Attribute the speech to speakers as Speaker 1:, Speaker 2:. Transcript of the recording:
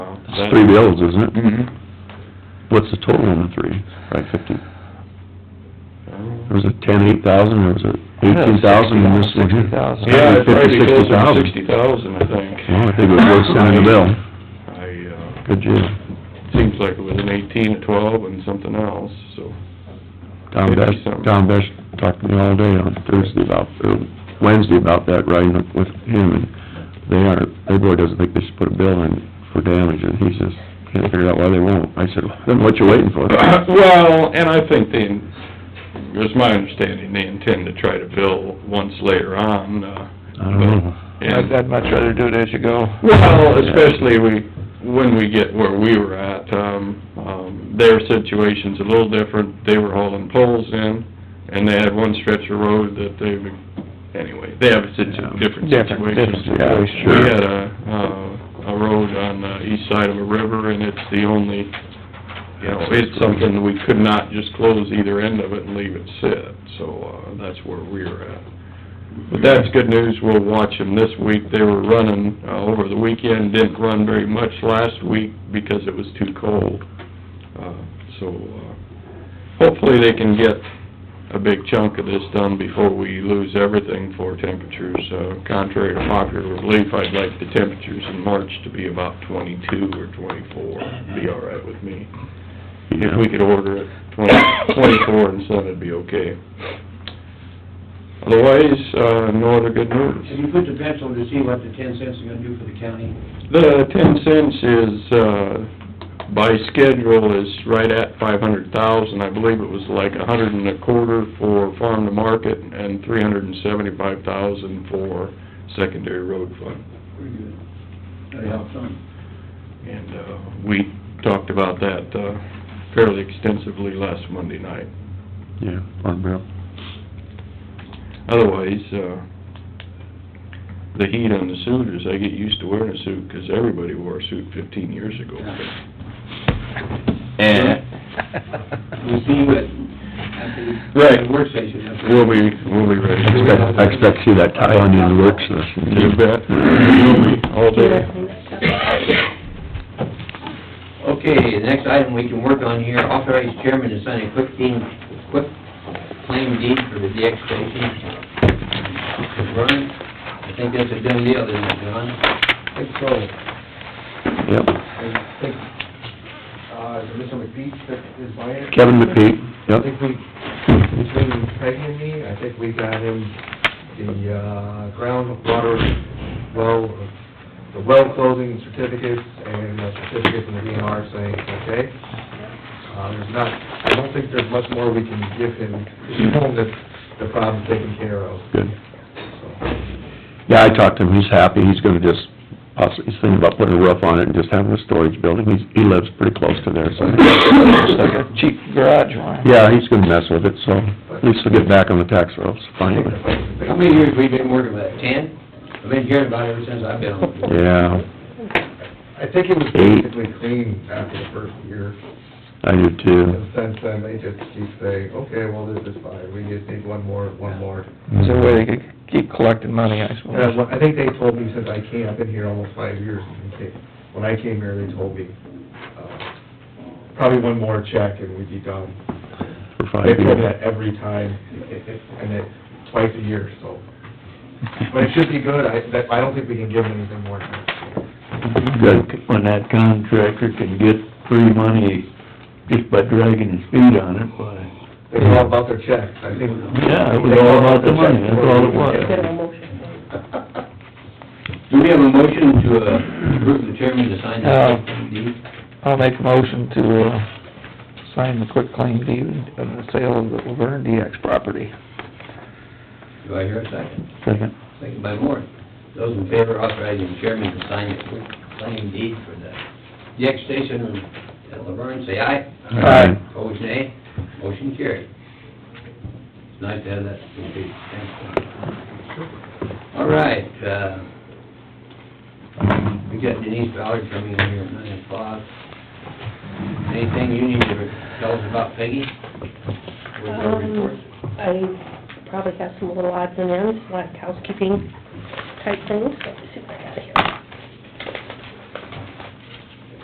Speaker 1: That's
Speaker 2: three bills, isn't it?
Speaker 1: Mm-hmm.
Speaker 2: What's the total on the three? Five fifty? Was it ten, eight thousand, or was it eighteen thousand in this one here?
Speaker 1: Yeah,
Speaker 2: Probably
Speaker 1: it's probably
Speaker 2: fifty, sixty
Speaker 1: closer to
Speaker 2: thousand.
Speaker 1: sixty thousand, I think.
Speaker 2: Well, I think it was worth sending the bill.
Speaker 1: I, uh,
Speaker 2: Good job.
Speaker 1: seems like it was an eighteen, a twelve, and something else, so.
Speaker 2: Tom Besh, Tom Besh talked to me all day on Thursday about, or Wednesday about that riding up with him, and they are, their boy doesn't think they should put a bill in for damage, and he says, can't figure out why they won't. I said, then what you waiting for?
Speaker 1: Well, and I think they, it's my understanding, they intend to try to bill once later on, uh.
Speaker 2: I don't know.
Speaker 1: and-
Speaker 3: much rather do it as you go.
Speaker 1: Well, especially we, when we get where we were at, um, um, their situation's a little different. They were hauling poles in, and they had one stretch of road that they would, anyway, they have a situ- different
Speaker 3: Different,
Speaker 1: situation.
Speaker 3: different
Speaker 2: Yeah,
Speaker 3: situation.
Speaker 1: We
Speaker 2: sure.
Speaker 1: had a, uh, a road on the east side of a river, and it's the only, you know, it's something that we could not just close either end of it and leave it sit, so, uh, that's where we were at. But that's good news, we'll watch them this week, they were running, uh, over the weekend, didn't run very much last week because it was too cold. Uh, so, uh, hopefully they can get a big chunk of this done before we lose everything for temperatures. Uh, contrary to popular belief, I'd like the temperatures in March to be about twenty-two or twenty-four, be all right with me. If we could order it twenty, twenty-four and send it'd be okay. Otherwise, uh, no other good news.
Speaker 4: Have you put the pencil to see what the ten cents are gonna do for the county?
Speaker 1: The ten cents is, uh, by schedule is right at five hundred thousand. I believe it was like a hundred and a quarter for farm to market and three hundred and seventy-five thousand for secondary road fund.
Speaker 4: Pretty good. That helps some.
Speaker 1: And, uh, we talked about that, uh, fairly extensively last Monday night.
Speaker 2: Yeah, farm bill.
Speaker 1: Otherwise, uh, the heat on the suiters, I get used to wearing a suit, 'cause everybody wore a suit fifteen years ago.
Speaker 4: We'll see what, after the.
Speaker 1: Right.
Speaker 4: Work session. after-
Speaker 1: We'll be, we'll be ready.
Speaker 2: I expect, I expect to see that tie on you in the uh, work session.
Speaker 1: You bet. You'll be all day.
Speaker 4: Okay, the next item we can work on here, authorize chairman to sign a quick deed, quick claim deed for the DX station. Run, I think that's a done deal, isn't it, John? I think so.
Speaker 2: Yep.
Speaker 4: I think, uh, is it Mr. McPeach that is buying it?
Speaker 2: Kevin McPeak, yep.
Speaker 5: I think we, between Peggy and me, I think we got him the, uh, groundwater well, the well closing certificates and a certificate from the DNR saying, okay. Uh, there's not, I don't think there's much more we can give him, he's home that the problem's taken care of,
Speaker 2: Good.
Speaker 5: so.
Speaker 2: Yeah, I talked to him, he's happy, he's gonna just, possi- he's thinking about putting a roof on it and just having a storage building, he's, he lives pretty close to there, so.
Speaker 3: It's like a cheap garage one.
Speaker 2: Yeah, he's gonna mess with it, so, at least he'll get back on the tax rolls, finally.
Speaker 4: How many years we been working with it, ten? I've been hearing about it ever since I've been on the board.
Speaker 2: Yeah,
Speaker 5: I think it was basically clean after the first year,
Speaker 2: I do too.
Speaker 5: and since then, they just keep saying, okay, well, this is fine, we just need one more, one more.
Speaker 3: Is there a way they could keep collecting money, I suppose?
Speaker 5: Uh, well, I think they told me since I came, I've been here almost five years, and they- when I came here, they told me, uh, probably one more check and we'd be done.
Speaker 2: For
Speaker 5: They
Speaker 2: five
Speaker 5: told me
Speaker 2: years.
Speaker 5: that every time, it- it- and it, twice a year, so. But it should be good, I, that, I don't think we can give them anything more.
Speaker 2: Good.
Speaker 6: when that contractor can get free money just by dragging his feet on it, why?
Speaker 5: They were all about their checks, I think.
Speaker 6: Yeah, it was all about the money, that's all it was.
Speaker 4: Do we have a motion to uh, approve the chairman to sign
Speaker 3: Uh,
Speaker 4: the claim deed?
Speaker 3: I'll make a motion to, uh, sign the quick claim deed of the sale of the Laverne DX property.
Speaker 4: Do I hear a second?
Speaker 3: Second.
Speaker 4: Second by Moore. Those in favor authorizing chairman to sign the quick claim deed for the DX station at Laverne, say aye.
Speaker 2: Aye.
Speaker 4: Opposed, nay. Motion carried. It's nice to have that complete. Thanks. All right, uh, we got Denise Ballard coming in here at nine o'clock. Anything you need to tell us about Peggy? Where's our report?
Speaker 7: Um, I probably have some little odds and ends, like housekeeping type things, but super.